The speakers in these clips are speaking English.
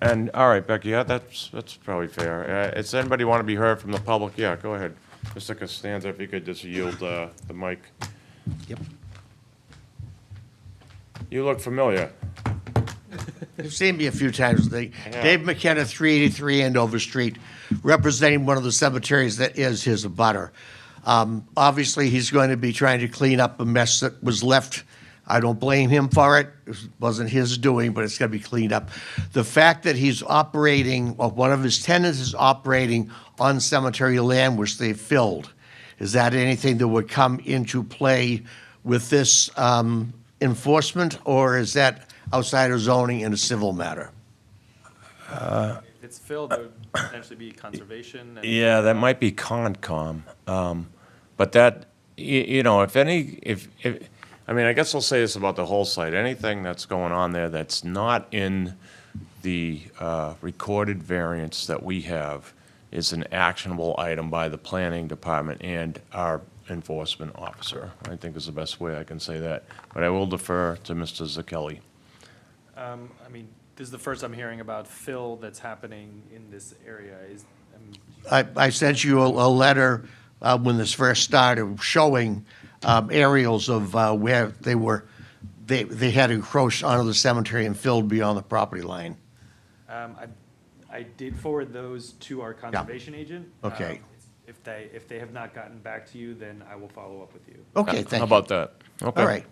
And, all right, Becky, yeah, that's, that's probably fair. Uh, Does anybody want to be heard from the public? Yeah, go ahead. Mr. Costanza, if you could just yield uh, the mic. Yep. You look familiar. You've seen me a few times. They- Yeah. Dave McKenna, 383 Andover Street, representing one of the cemeteries that is his abutter. Um, Obviously, he's going to be trying to clean up a mess that was left. I don't blame him for it. It wasn't his doing, but it's going to be cleaned up. The fact that he's operating, or one of his tenants is operating on cemetery land which they filled, is that anything that would come into play with this um, enforcement, or is that outside of zoning in a civil matter? If it's filled, there would potentially be conservation and. Yeah, that might be Concom. Um, But that, you, you know, if any, if, if, I mean, I guess I'll say this about the whole site. Anything that's going on there that's not in the uh, recorded variance that we have is an actionable item by the planning department and our enforcement officer, I think is the best way I can say that. But I will defer to Mr. Zakelli. Um, I mean, this is the first I'm hearing about fill that's happening in this area. Is, um, I, I sent you a, a letter uh, when this first started showing um, aerials of uh, where they were, they, they had encroached onto the cemetery and filled beyond the property Uh, line. um, I, I did forward those to our conservation agent. Okay. Um, If they, if they have not gotten back to you, then I will follow up with you. Okay, thank you. How about that? Okay. All right.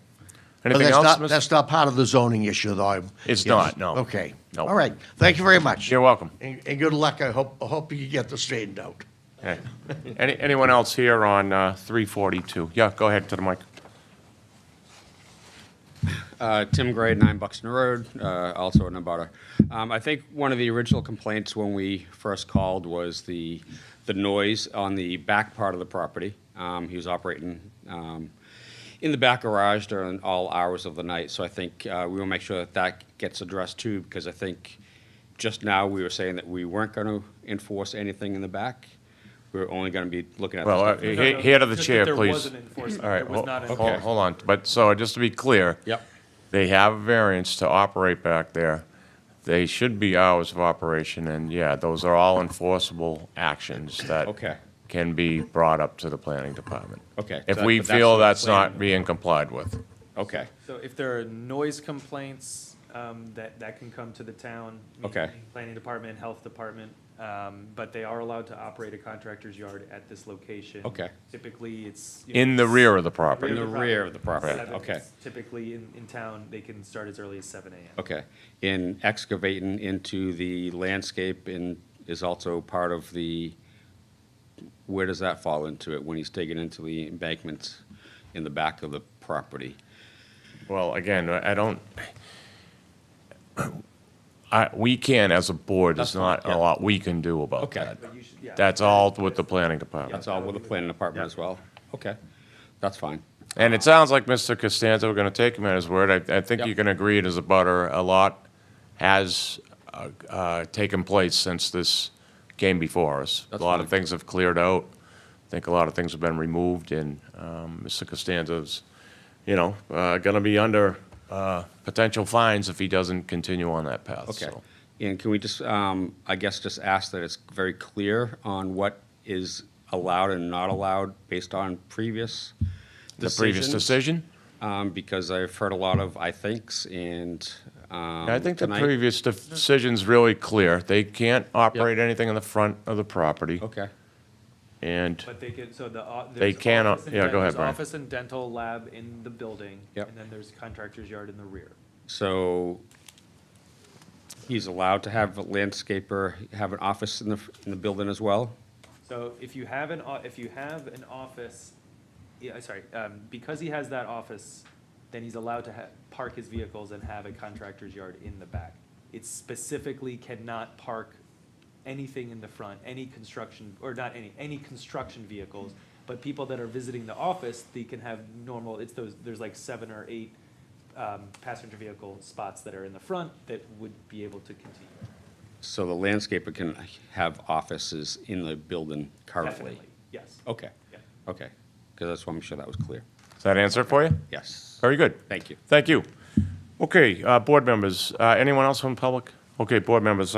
But Anything that's else, not- Mr.? That's not part of the zoning issue, though. It's Yes. not, no. Okay. No. All right, thank you very much. You're welcome. And, and good luck, I hope, I hope you get this straightened out. Okay. Any, anyone else here on uh, 342? Yeah, go ahead to the mic. Uh, Tim Gray, 9 Buxton Road, uh, also in Abutter. Um, I think one of the original complaints when we first called was the, the noise on the back part of the property. Um, He was operating um, in the back garage during all hours of the night, so I think uh, we will make sure that that gets addressed too, because I think just now we were saying that we weren't going to enforce anything in the back. We were only going to be looking at the Well, stuff uh, in the he- No, no, here to the just that chair, There please. was an enforcement, All right, there was hol- not okay, an enforcement. hold on. But, so, just to be clear. Yep. They have variance to operate back there. They should be hours of operation, and yeah, those are all enforceable actions that Okay. can be brought up to the planning department. Okay, If so we that- but that's feel what the that's not plan- being complied with. Okay. So if there are noise complaints, um, that, that can come to the town. Okay. meaning Planning department, health department, um, but they are allowed to operate a contractor's yard at this location. Okay. Typically, it's. you know, In the rear of the property. In the rear of the property, Seven- okay. Typically, in, in town, they can start as early as seven AM. Okay, and excavating into the landscape and is also part of the, where does that fall into it, when he's digging into the embankments in the back of the property? Well, again, I I don't, I, we can, as a board, there's That's not fine, a yeah. lot we can do about Okay. that. But you should- yeah. That's all with the planning That's department. all with the planning department as well? Okay, that's fine. And it sounds like Mr. Costanza, we're gonna take him at his word. I, I think Yep. you can agree it is a butter. A lot has, uh, uh, taken place since this came before us. A That's lot of fine. things have cleared out. I think a lot of things have been removed and, um, Mr. Costanza's, you know, uh, gonna be under, uh, potential fines if he doesn't continue on that path, Okay. so. And can we just, um, I guess, just ask that it's very clear on what is allowed and not allowed based on previous The previous decisions? decision? Um, because I've heard a lot of I thinks and, um. I think the tonight- previous decision's really clear. They can't operate anything in the front of the property. Okay, And But they could, so the. o- They there's cannot- office and yeah, den- go ahead, there's Brian. Office and dental lab in the building. Yep. And then there's contractor's yard in the rear. so he's allowed to have a landscaper, have an office in the, in the building as well? So if you have an, o- if you have an office, yeah, sorry, um, because he has that office, then he's allowed to ha- park his vehicles and have a contractor's yard in the back. It specifically cannot park anything in the front, any construction, or not any, any construction vehicles. But people that are visiting the office, they can have normal, it's those, there's like seven or eight, um, passenger vehicle spots that are in the front that would be able to continue. So the landscaper can have offices in the building currently? Definitely, Yes. Okay, Yeah. okay, because that's why I'm sure that was clear. does that answer it for you? Yes, Very good. thank you. Thank you. Okay, uh, board members, uh, anyone else from public? Okay, board members,